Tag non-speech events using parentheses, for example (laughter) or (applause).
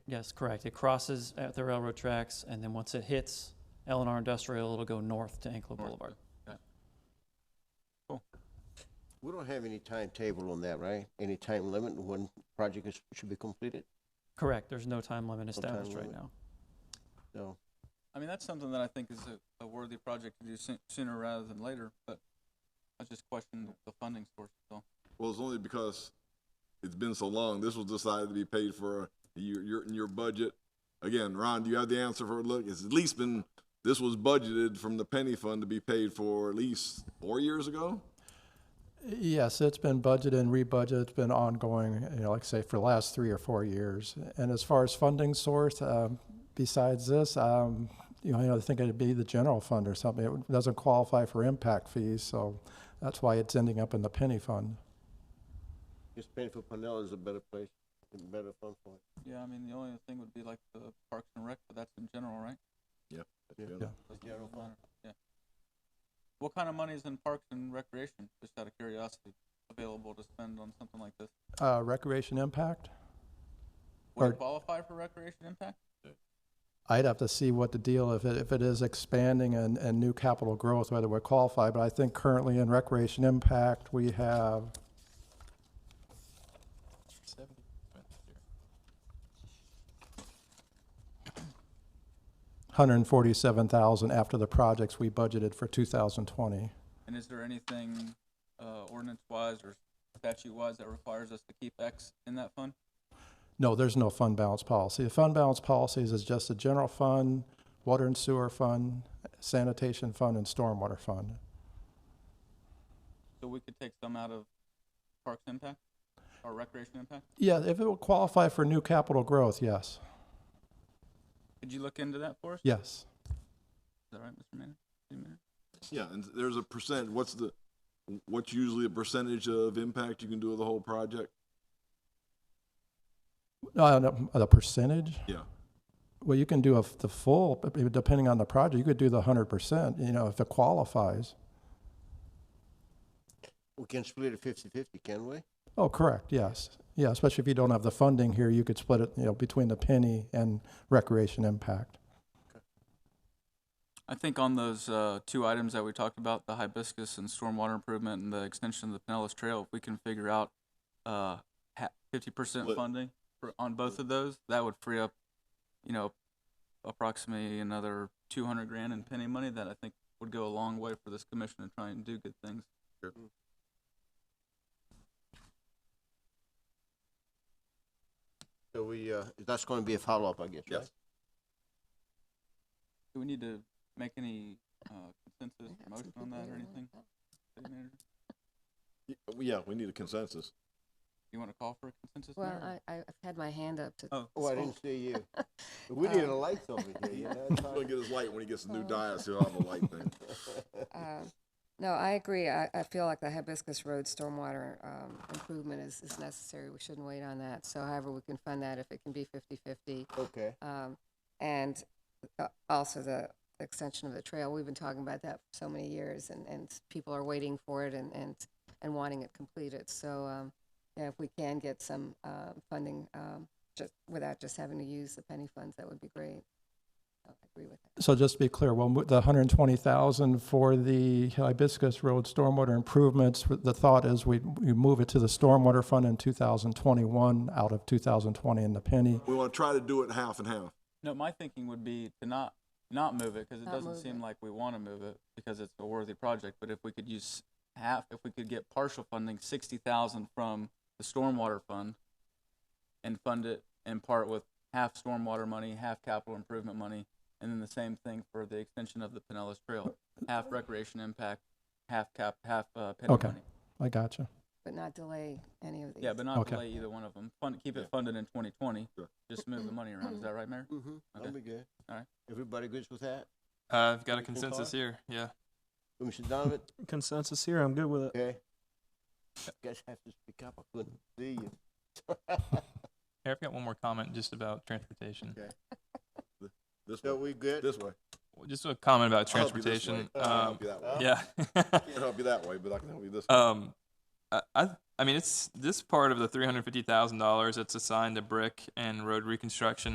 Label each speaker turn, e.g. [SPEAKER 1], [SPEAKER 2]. [SPEAKER 1] Yes, correct. It crosses at the railroad tracks, and then once it hits Eleanor Industrial, it'll go north to Anklo Boulevard.
[SPEAKER 2] We don't have any timetable on that, right? Any time limit on when project is, should be completed?
[SPEAKER 1] Correct. There's no time limit
[SPEAKER 2] time
[SPEAKER 1] established right
[SPEAKER 2] limit.
[SPEAKER 1] now.
[SPEAKER 2] No.
[SPEAKER 3] I mean, that's something that I think is a, a worthy project to do soo- sooner rather than later, but I just question the- the funding source, so.
[SPEAKER 4] Well, it's only because it's been so long. This was decided to be paid for your, your, in your budget. Again, Ron, do you have the answer for, look, it's at least been, this was budgeted from the penny fund to be paid for at least four years ago?
[SPEAKER 5] Yes, it's been budgeted and rebudgeted. It's been ongoing, you know, like I say, for the last three or four years. And as far as funding source, um, besides this, um, you know, I think it'd be the general fund or something. It doesn't qualify for impact fees, so that's why it's ending up in the penny fund.
[SPEAKER 2] Just paying for Pinellas is a better place, a better fund for it.
[SPEAKER 3] Yeah, I mean, the only thing would be like the Parks and Rec, but that's in general, right?
[SPEAKER 5] Yeah.
[SPEAKER 3] Doesn't
[SPEAKER 2] general
[SPEAKER 3] really
[SPEAKER 2] fund.
[SPEAKER 3] matter. Yeah. What kind of money is in Parks and Recreation, just out of curiosity, available to spend on something like this?
[SPEAKER 5] Uh, recreation impact?
[SPEAKER 3] Would
[SPEAKER 5] Or-
[SPEAKER 3] it qualify for recreation impact?
[SPEAKER 5] I'd have to see what the deal, if it, if it is expanding and, and new capital growth, whether we're qualified, but I think currently in recreation impact, we have. Hundred and forty-seven thousand after the projects we budgeted for two thousand twenty.
[SPEAKER 3] And is there anything, uh, ordinance-wise or statute-wise that requires us to keep X in that fund?
[SPEAKER 5] No, there's no fund balance policy. The fund balance policies is just a general fund, water and sewer fund, sanitation fund, and stormwater fund.
[SPEAKER 3] So we could take some out of Parks impact or recreation impact?
[SPEAKER 5] Yeah, if it will qualify for new capital growth, yes,
[SPEAKER 3] Could you look into that for us?
[SPEAKER 5] yes.
[SPEAKER 3] Is that right, Mr. Mayor? City Manager?
[SPEAKER 4] Yeah, and there's a percent, what's the, what's usually a percentage of impact you can do of the whole project?
[SPEAKER 5] Uh, the- the percentage,
[SPEAKER 4] Yeah,
[SPEAKER 5] well, you can do a, the full, but it- depending on the project, you could do the hundred percent, you know, if it qualifies.
[SPEAKER 2] We can split it fifty-fifty, can we?
[SPEAKER 5] Oh, correct, yes, yeah, especially if you don't have the funding here, you could split it, you know, between the penny and recreation impact.
[SPEAKER 3] I think on those uh, two items that we talked about, the hibiscus and stormwater improvement and the extension of the Pinellas Trail, if we can figure out uh, fifty percent
[SPEAKER 4] What-
[SPEAKER 3] funding for, on both of those, that would free up, you know, approximately another two hundred grand in penny money that I think would go a long way for this commission to try and do good things.
[SPEAKER 2] So we, uh, that's gonna be a follow-up, I guess, right?
[SPEAKER 4] Yes.
[SPEAKER 3] Do we need to make any uh, consensus or motion on that or anything? City Manager,
[SPEAKER 4] Y- yeah, we need a consensus.
[SPEAKER 3] You want to call for a consensus?
[SPEAKER 6] Well,
[SPEAKER 3] Mayor?
[SPEAKER 6] I, I- I've had my hand up to.
[SPEAKER 3] Oh.
[SPEAKER 2] Oh, I
[SPEAKER 6] speak.
[SPEAKER 2] didn't see you. We need a
[SPEAKER 6] Um,
[SPEAKER 2] light over here, you know? (laughs)
[SPEAKER 4] He's gonna get his light when he gets the new
[SPEAKER 6] Oh.
[SPEAKER 4] dais, he'll have a light thing.
[SPEAKER 3] oh,
[SPEAKER 6] Uh, No, I agree. I, I feel like the Hibiscus Road stormwater um, improvement is, is necessary. We shouldn't wait on that. So however, we can fund that if it can be fifty-fifty.
[SPEAKER 2] Okay,
[SPEAKER 6] Um, and uh, also the extension of the trail. We've been talking about that for so many years and, and people are waiting for it and, and, and wanting it completed. So, um, yeah, if we can get some, uh, funding, um, just without just having to use the penny funds, that would be great. I agree with that.
[SPEAKER 5] So just to be clear, well, mo- the hundred and twenty thousand for the Hibiscus Road stormwater improvements, the thought is we, we move it to the stormwater fund in two thousand twenty-one out of two thousand twenty in the penny.
[SPEAKER 4] We wanna try to do it half and half.
[SPEAKER 3] No, my thinking would be to not, not move it, because it
[SPEAKER 6] Not
[SPEAKER 3] doesn't
[SPEAKER 6] move
[SPEAKER 3] seem
[SPEAKER 6] it.
[SPEAKER 3] like we want to move it, because it's a worthy project, but if we could use half, if we could get partial funding, sixty thousand from the stormwater fund, and fund it in part with half stormwater money, half capital improvement money, and then the same thing for the extension of the Pinellas Trail, half recreation impact, half cap, half, uh, penny
[SPEAKER 5] Okay.
[SPEAKER 3] money.
[SPEAKER 5] I gotcha.
[SPEAKER 6] But not delay any of these.
[SPEAKER 3] Yeah, but not
[SPEAKER 5] Okay.
[SPEAKER 3] delay either one of them, fund, keep it funded in twenty twenty,
[SPEAKER 4] Sure.
[SPEAKER 3] just move the money around, is that right, Mayor?
[SPEAKER 2] mm-hmm, that'll
[SPEAKER 3] Okay.
[SPEAKER 2] be good.
[SPEAKER 3] All right.
[SPEAKER 2] Everybody good with that?
[SPEAKER 7] Uh, I've got a
[SPEAKER 2] Anything,
[SPEAKER 7] consensus
[SPEAKER 2] Tyler?
[SPEAKER 7] here. Yeah.
[SPEAKER 2] Mr. Donovan,
[SPEAKER 8] consensus here. I'm good with it.
[SPEAKER 2] okay? Guess I have to speak up, I couldn't see you.
[SPEAKER 7] Here, I've got one more comment just about transportation.
[SPEAKER 2] Okay.
[SPEAKER 4] This
[SPEAKER 2] So
[SPEAKER 4] way,
[SPEAKER 2] we (laughs) good?
[SPEAKER 4] this way.
[SPEAKER 7] Well, Just a comment about
[SPEAKER 4] I'll help you this
[SPEAKER 7] transportation.
[SPEAKER 4] way. Uh, I'll
[SPEAKER 7] Um,
[SPEAKER 4] help you that way.
[SPEAKER 7] yeah. (laughs)
[SPEAKER 4] (laughs) Can't help you that way, but I can help you this way.
[SPEAKER 7] um, I, I, I mean, it's this part of the three hundred fifty thousand dollars that's assigned to brick and road reconstruction